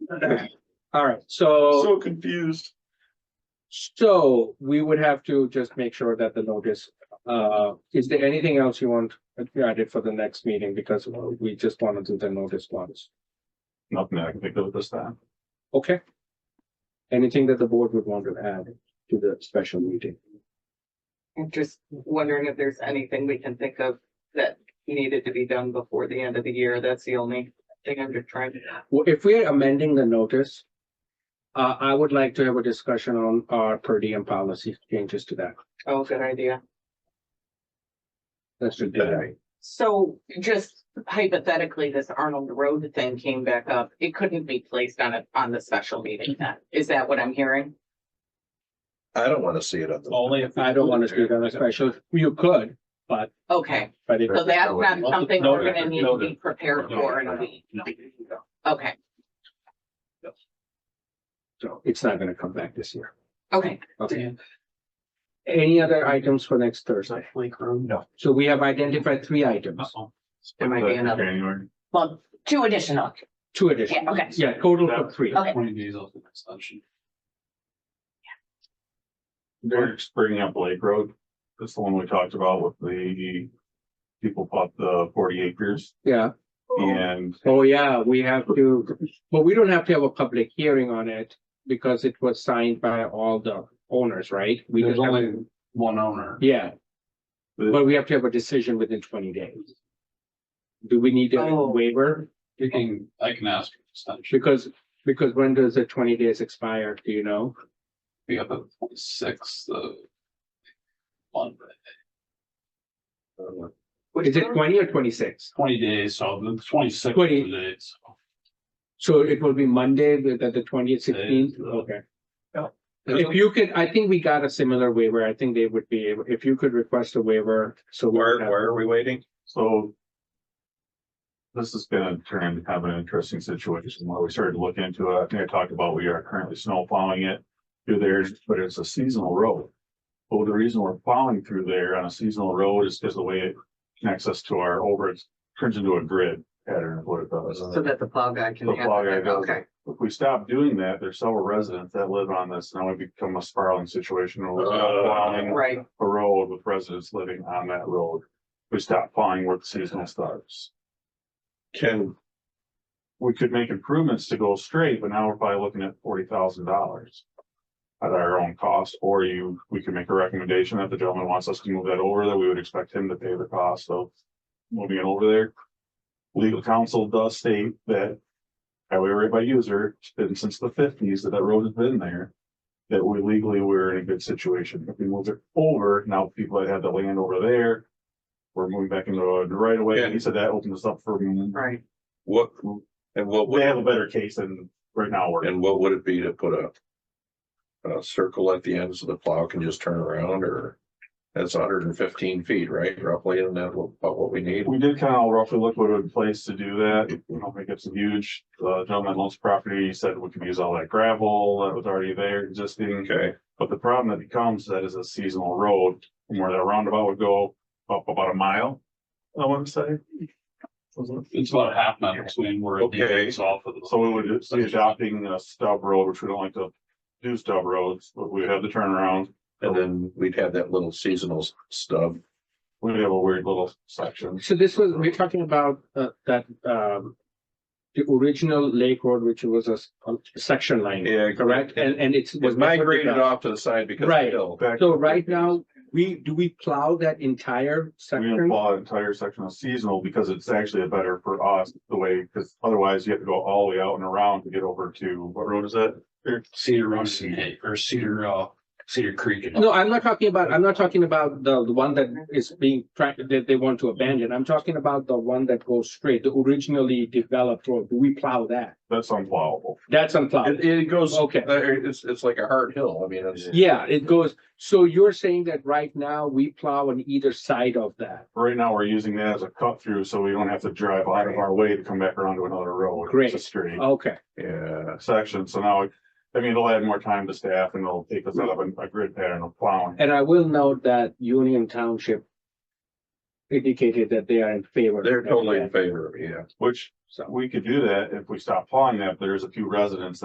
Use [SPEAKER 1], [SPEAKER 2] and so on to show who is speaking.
[SPEAKER 1] All right, so,
[SPEAKER 2] So confused.
[SPEAKER 1] so we would have to just make sure that the notice, uh, is there anything else you want added for the next meeting? Because we just want to do the notice once.
[SPEAKER 2] Nothing I can think of this time.
[SPEAKER 1] Okay. Anything that the board would want to add to the special meeting?
[SPEAKER 3] I'm just wondering if there's anything we can think of that needed to be done before the end of the year. That's the only thing I'm just trying to.
[SPEAKER 1] Well, if we're amending the notice, uh, I would like to have a discussion on our per diem policy changes to that.
[SPEAKER 3] Oh, good idea.
[SPEAKER 1] That's should be that.
[SPEAKER 3] So just hypothetically, this Arnold Road thing came back up. It couldn't be placed on it, on the special meeting then. Is that what I'm hearing?
[SPEAKER 4] I don't wanna see it on the.
[SPEAKER 2] Only if.
[SPEAKER 1] I don't want to speak on a special, you could,
[SPEAKER 3] Okay,
[SPEAKER 1] but if,
[SPEAKER 3] so that's not
[SPEAKER 4] Noted.
[SPEAKER 3] something we're gonna
[SPEAKER 2] Noted.
[SPEAKER 3] need to be prepared for in a week. Okay,
[SPEAKER 1] so it's not gonna come back this year.
[SPEAKER 3] okay.
[SPEAKER 1] Okay. Any other items for next Thursday?
[SPEAKER 2] No.
[SPEAKER 1] So we have identified three items,
[SPEAKER 3] There might be another.
[SPEAKER 2] January.
[SPEAKER 5] Well, two additional,
[SPEAKER 1] two additions.
[SPEAKER 5] yeah, okay.
[SPEAKER 1] Yeah, total of three.
[SPEAKER 5] Okay.
[SPEAKER 2] Twenty days off the next option. They're just bringing up Lake Road. That's the one we talked about with the people bought the forty acres
[SPEAKER 1] Yeah.
[SPEAKER 2] and
[SPEAKER 1] Oh, yeah, we have to, but we don't have to have a public hearing on it because it was signed by all the owners, right? We
[SPEAKER 6] There's
[SPEAKER 1] just have-
[SPEAKER 6] only one owner.
[SPEAKER 1] Yeah. But we have to have a decision within twenty days. Do we need a
[SPEAKER 3] Oh.
[SPEAKER 1] waiver?
[SPEAKER 6] You can, I can ask, essentially,
[SPEAKER 1] Because, because when does the twenty days expire? Do you know?
[SPEAKER 6] we have the twenty-sixth of Monday,
[SPEAKER 1] Is it twenty or twenty-six?
[SPEAKER 6] twenty days, so the twenty-sixth
[SPEAKER 1] 20.
[SPEAKER 6] days.
[SPEAKER 1] So it will be Monday, the, the twentieth, sixteenth,
[SPEAKER 6] Yeah.
[SPEAKER 1] okay.
[SPEAKER 2] Yeah.
[SPEAKER 1] If you could, I think we got a similar waiver. I think they would be, able- if you could request a waiver, so. we
[SPEAKER 4] Where,
[SPEAKER 1] have-
[SPEAKER 4] where are we waiting?
[SPEAKER 2] so. This is gonna turn to have an interesting situation. When we started to look into it, I think I talked about we are currently snow plowing it through there, but it's a seasonal road. Well, the reason we're plowing through there on a seasonal road is because the way it connects us to our over, it turns into a grid pattern of what it does.
[SPEAKER 3] So that the plow guy can
[SPEAKER 2] The
[SPEAKER 3] handle
[SPEAKER 2] plow guy
[SPEAKER 3] it.
[SPEAKER 2] does it.
[SPEAKER 3] Okay,
[SPEAKER 2] If we stop doing that, there's several residents that live on this. Now we become a spiraling situation. where we're
[SPEAKER 4] Uh,
[SPEAKER 2] plowing
[SPEAKER 3] right.
[SPEAKER 2] a road with residents living on that road. We stop plowing where the seasonal starts.
[SPEAKER 4] Can,
[SPEAKER 2] We could make improvements to go straight, but now we're probably looking at forty thousand dollars. At our own cost, or you, we could make a recommendation that the gentleman wants us to move that over, that we would expect him to pay the cost of moving it over there. Legal counsel does state that highway rate by user, it's been since the fifties that that road has been there. That we legally, we're in a good situation. If we move it over, now people that had the land over there. We're moving back into a right away. way. He said that opens us up for
[SPEAKER 3] Right,
[SPEAKER 4] what, and what,
[SPEAKER 2] they have
[SPEAKER 4] would
[SPEAKER 2] a better case than right now we're.
[SPEAKER 4] and what would it be to put a. A circle at the end so the plow can just turn around or? That's hundred and fifteen feet, right? Roughly, and that about what we need.
[SPEAKER 2] We did kind of roughly look what would place to do that. We don't think it's huge. The gentleman owns property, he said we could use all that gravel that was already there existing.
[SPEAKER 4] Okay,
[SPEAKER 2] But the problem that becomes that is a seasonal road from where that roundabout would go up about a mile, I want to say.
[SPEAKER 6] It's about a half mile between where it
[SPEAKER 4] Okay.
[SPEAKER 6] leaves off of the.
[SPEAKER 2] So we would just be adopting a stub road, which we don't like to do stub roads, but we have the turnaround.
[SPEAKER 4] and then we'd have that little seasonal stub.
[SPEAKER 2] We have a weird little section.
[SPEAKER 1] So this was, we're talking about uh, that, um, the original Lake Road, which was a s- a section line,
[SPEAKER 4] Yeah,
[SPEAKER 1] correct? And, and it's.
[SPEAKER 4] Was migrated off to the side because. of the
[SPEAKER 1] Right.
[SPEAKER 4] hill.
[SPEAKER 2] Back-
[SPEAKER 1] So right now, we, do we plow that entire
[SPEAKER 2] We didn't
[SPEAKER 1] section?
[SPEAKER 2] plow an entire section of seasonal because it's actually better for us the way, because otherwise you have to go all the way out and around to get over to, what road is that?
[SPEAKER 6] Cedar Run and Hay, or Cedar, uh, Cedar Creek. and-
[SPEAKER 1] No, I'm not talking about, I'm not talking about the, the one that is being tracked, that they want to abandon. I'm talking about the one that goes straight, the originally developed road. Do we plow that?
[SPEAKER 2] That's unplowable.
[SPEAKER 1] That's
[SPEAKER 4] It,
[SPEAKER 1] unplowed.
[SPEAKER 4] it goes,
[SPEAKER 1] Okay.
[SPEAKER 4] there, it's, it's like a hard hill. I mean, it's.
[SPEAKER 1] Yeah, it goes, so you're saying that right now we plow on either side of that?
[SPEAKER 2] Right now, we're using that as a cut through, so we don't have to drive out of our way to come back around to another road.
[SPEAKER 1] Great.
[SPEAKER 2] It's a straight
[SPEAKER 1] Okay,
[SPEAKER 4] Yeah,
[SPEAKER 2] section, so now, I mean, it'll add more time to staff and it'll take us out of a a grid pattern of plowing.
[SPEAKER 1] and I will note that Union Township indicated that they are in favor.
[SPEAKER 4] they're
[SPEAKER 1] of
[SPEAKER 4] totally in
[SPEAKER 1] that.
[SPEAKER 4] favor, yeah.
[SPEAKER 2] Which
[SPEAKER 1] so.
[SPEAKER 2] We could do that if we stop plowing that, but there's a few residents